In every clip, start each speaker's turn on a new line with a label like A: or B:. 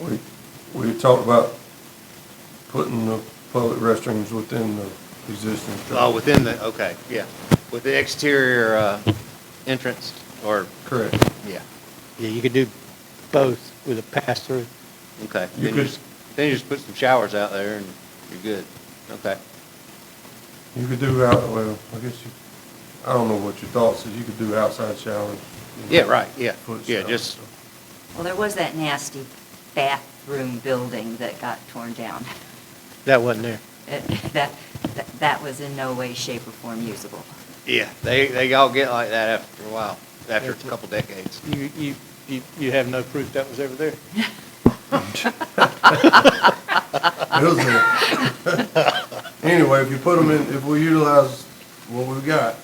A: We, we talked about putting the public restrooms within the existing structure.
B: Oh, within the, okay, yeah, with the exterior uh, entrance, or,
A: Correct.
B: yeah,
C: Yeah, you could do both with a pass-through.
B: okay.
A: You
B: Then
A: could-
B: just- Then you just put some showers out there and you're good, okay.
A: You could do out, well, I guess you, I don't know what your thoughts is, you could do outside showers.
B: Yeah, right, yeah,
A: Foot
B: yeah,
A: showers,
B: just,
A: so.
D: Well, there was that nasty bathroom building that got torn down.
C: That wasn't there.
D: It- That, that- that was in no way, shape, or form usable.
B: yeah, they, they all get like that after a while, after a couple decades.
C: You, you, you, you have no proof that was ever there?
A: It was a- Anyway, if you put them in, if we utilize what we've got.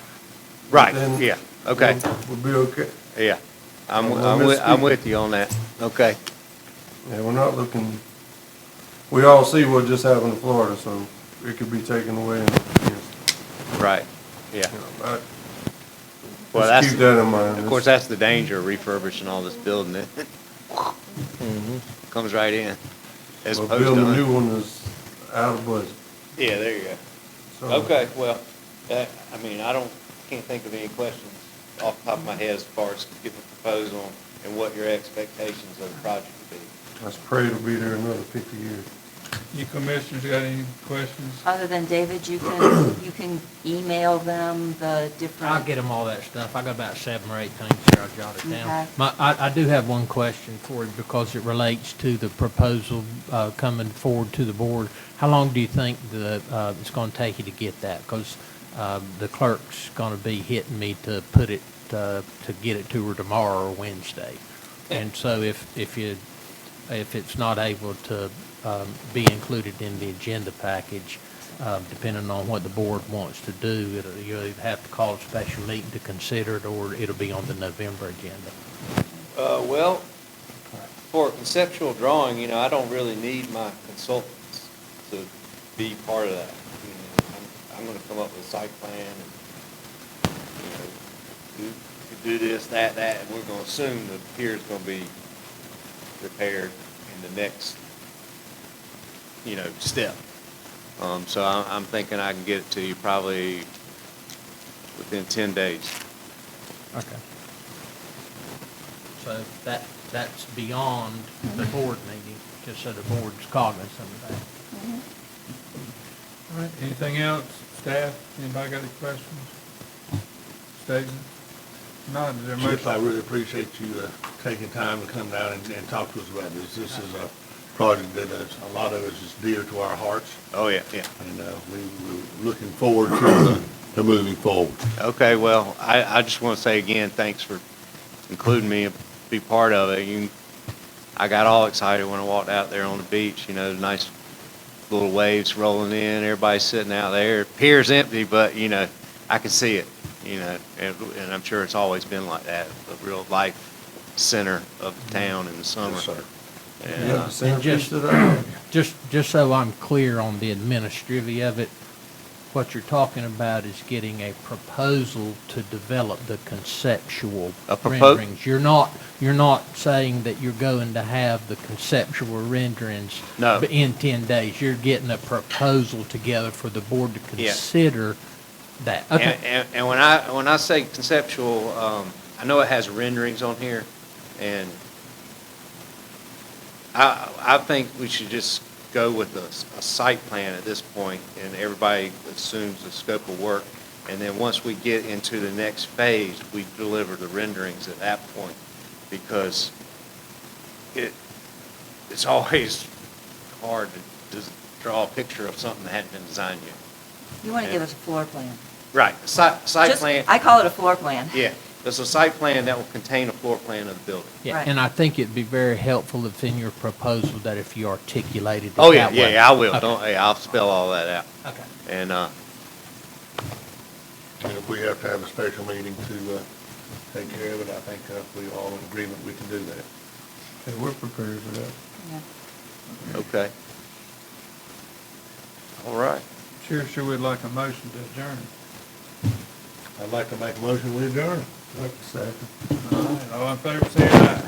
B: Right,
A: then
B: yeah, okay,
A: we'll- We'll be okay.
B: yeah. I'm,
A: Well,
B: I'm with, I'm
A: misspeak.
B: with you on that, okay.
A: Yeah, we're not looking, we all see what just happened in Florida, so it could be taken away and, you
B: Right, yeah.
A: know, I-
B: Well,
A: Just
B: that's,
A: keep that in mind.
B: of course, that's the danger of refurbishing all this building. It comes right in. as
A: Well,
B: opposed to
A: Building a
B: un-
A: new one is out of budget.
B: Yeah, there you go.
A: so-
B: Okay, well, that, I mean, I don't, can't think of any questions off the top of my head as far as getting a proposal and what your expectations of the project would be.
A: Let's pray it'll be there another fifty years.
E: You commissioners got any questions?
D: Other than David, you can, you can email them the different.
F: I'll get them all that stuff. I got about seven or eight things here I jotted
D: Okay.
F: down. My, I, I do have one question for you because it relates to the proposal, uh, coming forward to the board. How long do you think the, uh, it's gonna take you to get that? Because, uh, the clerk's gonna be hitting me to put it, uh, to get it to her tomorrow or Wednesday. And so if, if you, if it's not able to, um, be included in the agenda package, um, depending on what the board wants to do, it'll, you'll either have to call a special meeting to consider it, or it'll be on the November agenda.
B: Uh, well, for a conceptual drawing, you know, I don't really need my consultants to be part of that. You know, I'm, I'm gonna come up with a site plan and, you know, do, do this, that, that, and we're gonna assume the pier's gonna be repaired in the next, you know, step. Um, so I'm, I'm thinking I can get it to you probably within ten days.
F: Okay. So that, that's beyond the board meeting, just so the board's cognizant of that.
E: All right, anything else, staff, anybody got any questions? Statement? Not, is there a
G: Chips, I
E: motion?
G: really appreciate you uh, taking time to come down and, and talk to us about this. This is a project that is, a lot of us is dear to our hearts,
B: Oh, yeah, yeah.
G: and, uh, we, we're looking forward to, uh, to moving forward.
B: Okay, well, I, I just want to say again, thanks for including me, be part of it. You, I got all excited when I walked out there on the beach, you know, the nice little waves rolling in, everybody sitting out there. Pier's empty, but, you know, I can see it, you know, and, and I'm sure it's always been like that, a real life center of the town in the summer.
G: Yes, sir.
B: And,
A: Yeah,
B: uh,
A: the centerpiece
F: just-
A: of that.
F: Just, just so I'm clear on the administrative of it, what you're talking about is getting a proposal to develop the conceptual
B: A propo-
F: renderings. You're not, you're not saying that you're going to have the conceptual renderings
B: No.
F: in ten days. You're getting a proposal together for the board to
B: Yeah.
F: consider that. Okay,
B: And, and, and when I, when I say conceptual, um, I know it has renderings on here, and I, I think we should just go with a, s- a site plan at this point, and everybody assumes the scope of work. And then once we get into the next phase, we deliver the renderings at that point, because it, it's always hard to just draw a picture of something that hadn't been designed yet.
D: You want to give us a floor plan.
B: Right, site, site
D: Just-
B: plan.
D: I call it a floor plan.
B: Yeah, there's a site plan that will contain a floor plan of the building.
F: yeah,
D: right.
F: and I think it'd be very helpful if in your proposal that if you articulated it that
B: Oh, yeah,
F: way.
B: yeah, yeah, I will,
F: Okay,
B: don't, yeah, I'll spell all that out,
F: Okay.
B: and, uh,
G: And if we have to have a special meeting to, uh, take care of it, I think, uh, we all in agreement we can do that.
A: And we're prepared for that.
D: Yeah.
B: okay. All right,
E: Sure, sure would like a motion to adjourn.
G: I'd like to make a motion, we adjourn.
A: Second.
E: All right, all in favor, say aye.